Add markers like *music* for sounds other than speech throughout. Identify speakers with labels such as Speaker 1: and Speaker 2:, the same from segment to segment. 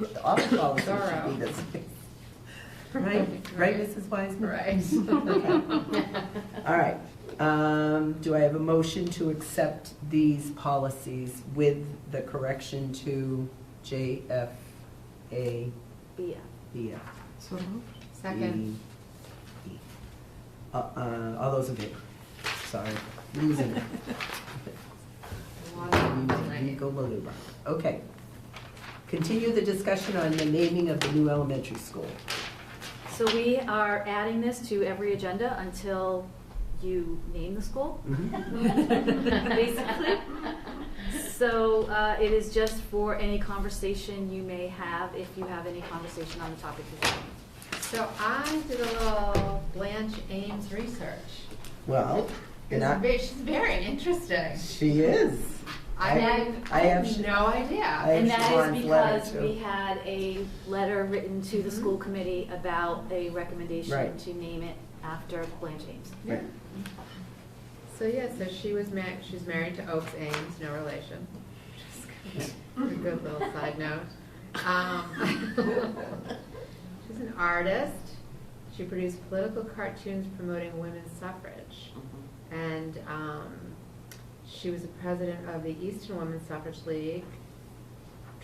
Speaker 1: The office policy should
Speaker 2: Thorough.
Speaker 1: be this. Right, right, Mrs. Wiseman?
Speaker 2: Right.
Speaker 1: All right, um, do I have a motion to accept these policies with the correction to JFA?
Speaker 3: Yeah.
Speaker 1: Yeah.
Speaker 4: So moved.
Speaker 2: Second.
Speaker 1: E. Uh, uh, all those in favor? Sorry, losing it. Losing it. Go Malouba. Okay. Continue the discussion on the naming of the new elementary school.
Speaker 3: So we are adding this to every agenda until you name the
Speaker 2: *laughs*
Speaker 3: school,
Speaker 1: Mhm.
Speaker 3: basically. So uh, it is just for any conversation you may have, if you have any conversation on the topic this evening.
Speaker 2: So I did a little Blanche Ames research.
Speaker 1: Well, and
Speaker 2: It's
Speaker 1: I-
Speaker 2: ve- She's very interesting.
Speaker 1: she is.
Speaker 2: I had
Speaker 1: I have-
Speaker 2: no
Speaker 1: I
Speaker 2: idea.
Speaker 3: And
Speaker 1: have
Speaker 3: that
Speaker 1: Siobhan's
Speaker 3: is
Speaker 1: letter,
Speaker 3: because
Speaker 1: too.
Speaker 3: we had a letter written to the
Speaker 2: Mhm.
Speaker 3: school committee about a recommendation
Speaker 1: Right.
Speaker 3: to name it after Blanche Ames. *laughs*
Speaker 1: Right.
Speaker 2: So, yeah, so she was ma, she's married to Oaks Ames, no relation. Just a Good little side note. Um, *laughs* She's an artist. She produced political cartoons promoting women's suffrage. And um, she was the president of the Eastern Women's Suffrage League,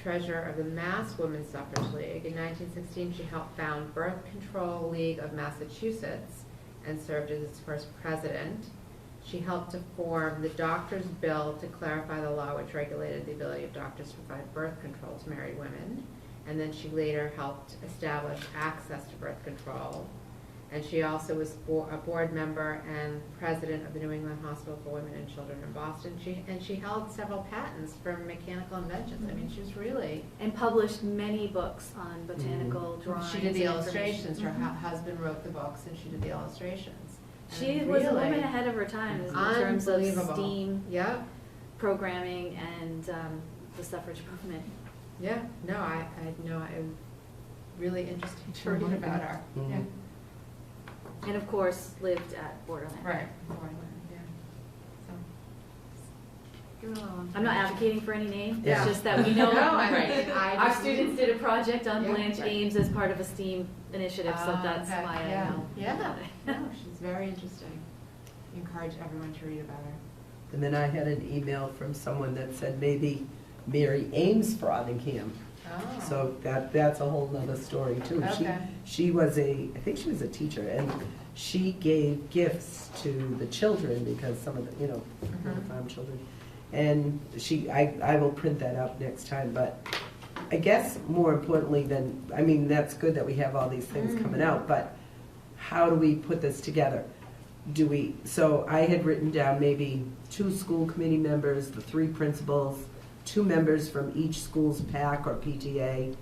Speaker 2: treasurer of the Mass Women's Suffrage League. In 1916, she helped found Birth Control League of Massachusetts and served as its first president. She helped to form the Doctors' Bill to clarify the law which regulated the ability of doctors to provide birth control to married women. And then she later helped establish access to birth control. And she also was bo- a board member and president of the New England Hospital for Women and Children in Boston. She, and she held several patents for mechanical inventions. I mean, she was really,
Speaker 3: And published many books on botanical
Speaker 1: Mm-hmm.
Speaker 3: drawings.
Speaker 2: she did the
Speaker 3: and information.
Speaker 2: illustrations. Her
Speaker 3: Mhm.
Speaker 2: hu- husband wrote the books and she did the illustrations. I
Speaker 3: She
Speaker 2: mean,
Speaker 3: was a
Speaker 2: really
Speaker 3: woman ahead of her time in terms of
Speaker 2: unbelievable.
Speaker 3: STEAM
Speaker 2: Yep,
Speaker 3: programming and um, the suffrage movement.
Speaker 2: yeah, no, I, I know, it was really interesting to read about her.
Speaker 1: Mhm.
Speaker 2: Yeah.
Speaker 3: And of course, lived at Borderland.
Speaker 2: Right. yeah. So, give it a little-
Speaker 3: I'm not advocating for any name,
Speaker 1: Yeah.
Speaker 3: it's just that we
Speaker 2: *laughs*
Speaker 3: know.
Speaker 2: No, I mean, I
Speaker 3: *laughs* Our
Speaker 2: just-
Speaker 3: students did a project on
Speaker 2: Yeah.
Speaker 3: Blanche Ames as part of a STEAM initiative, so
Speaker 2: Ah,
Speaker 3: that's
Speaker 2: okay,
Speaker 3: why I
Speaker 2: yeah.
Speaker 3: know. *laughs*
Speaker 2: Yeah, no, she's very interesting. Encourage everyone to read about her.
Speaker 1: And then I had an email from someone that said maybe Mary Ames Frothingham.
Speaker 2: Oh.
Speaker 1: So that, that's a whole nother story too. She,
Speaker 2: Okay.
Speaker 1: she was a, I think she was a teacher and she gave gifts to the children because some of the, you know,
Speaker 2: Mhm.
Speaker 1: farm children. And she, I, I will print that up next time, but I guess more importantly than, I mean, that's good that we have all these things
Speaker 2: Mm.
Speaker 1: coming out, but how do we put this together? Do we, so I had written down maybe two school committee members, the three principals, two members from each school's PAC or PTA,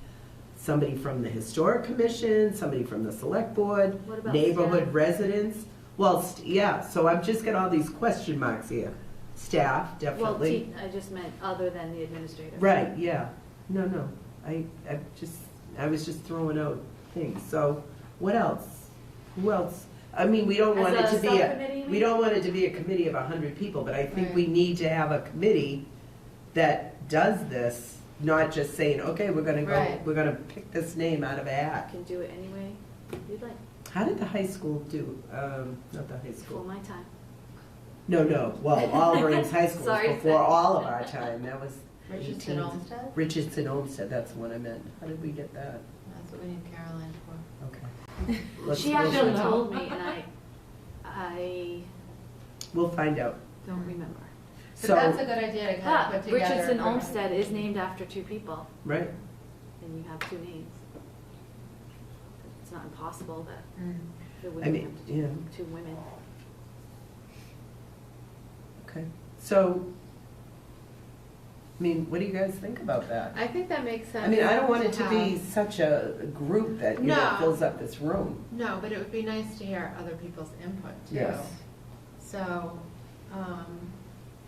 Speaker 1: somebody from the historic commission, somebody from the select board,
Speaker 3: What about
Speaker 1: neighborhood
Speaker 3: staff?
Speaker 1: residents. Well, st- yeah, so I've just got all these question marks here. Staff,
Speaker 3: Well,
Speaker 1: definitely.
Speaker 3: te- I just meant other than the administrator.
Speaker 1: Right, yeah. No, no, I, I just, I was just throwing out things. So what else? Who else? I mean, we don't
Speaker 3: As
Speaker 1: want it
Speaker 3: a
Speaker 1: to be
Speaker 3: subcommittee,
Speaker 1: a,
Speaker 3: you
Speaker 1: we
Speaker 3: mean?
Speaker 1: don't want it to be a committee of a hundred people, but I think
Speaker 2: Right.
Speaker 1: we need to have a committee that does this, not just saying, okay, we're gonna go,
Speaker 2: Right.
Speaker 1: we're gonna pick this name out of a
Speaker 3: I
Speaker 1: hat.
Speaker 3: can do it anyway you'd like,
Speaker 1: How did the high school do? Um, not the high
Speaker 3: before
Speaker 1: school.
Speaker 3: my time.
Speaker 1: No, no, well,
Speaker 3: *laughs*
Speaker 1: Alberings High School was
Speaker 3: Sorry.
Speaker 1: before all of our time, that was
Speaker 2: Richardson
Speaker 1: 18th.
Speaker 2: Olmsted?
Speaker 1: Richardson Olmsted, that's the one I meant. How did we get that?
Speaker 2: That's what we need Caroline for.
Speaker 1: Okay. Let's-
Speaker 3: She
Speaker 1: we'll
Speaker 3: actually
Speaker 1: find-
Speaker 2: know.
Speaker 3: told me, and I, I
Speaker 1: We'll find out.
Speaker 3: don't remember.
Speaker 2: But that's a
Speaker 1: So,
Speaker 2: good idea to kind of Hmm.
Speaker 3: But
Speaker 2: put together.
Speaker 3: Richardson
Speaker 2: for-
Speaker 3: Olmsted is named after two people,
Speaker 1: right,
Speaker 3: and you have two names. It's not impossible that
Speaker 2: Mm.
Speaker 3: there
Speaker 1: I
Speaker 3: wouldn't
Speaker 1: mean,
Speaker 3: have
Speaker 1: yeah,
Speaker 3: two women.
Speaker 1: okay. So, I mean, what do you guys think about that?
Speaker 2: I think that makes sense.
Speaker 1: I mean, I don't want it to be
Speaker 2: have-
Speaker 1: such a group that, you know,
Speaker 2: No.
Speaker 1: fills up this room.
Speaker 2: No, but it would be nice to hear other people's input too. So, um,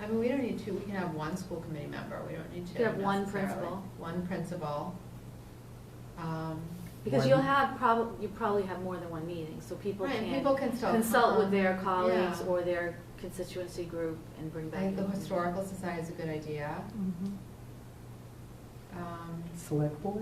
Speaker 2: I mean, we don't need two, we can have one school committee member, we don't need two
Speaker 3: Could have one
Speaker 2: necessarily.
Speaker 3: principal.
Speaker 2: One principal. Um,
Speaker 3: Because
Speaker 1: One-
Speaker 3: you'll have prob, you probably have more than one meeting, so people
Speaker 2: Right,
Speaker 3: can
Speaker 2: people can still
Speaker 3: consult with
Speaker 2: come.
Speaker 3: their colleagues
Speaker 2: Yeah.
Speaker 3: or their constituency group and bring
Speaker 2: I
Speaker 3: back.
Speaker 2: think the
Speaker 3: input.
Speaker 2: Mm-hmm. historical society is a good idea. Um,
Speaker 1: Select board?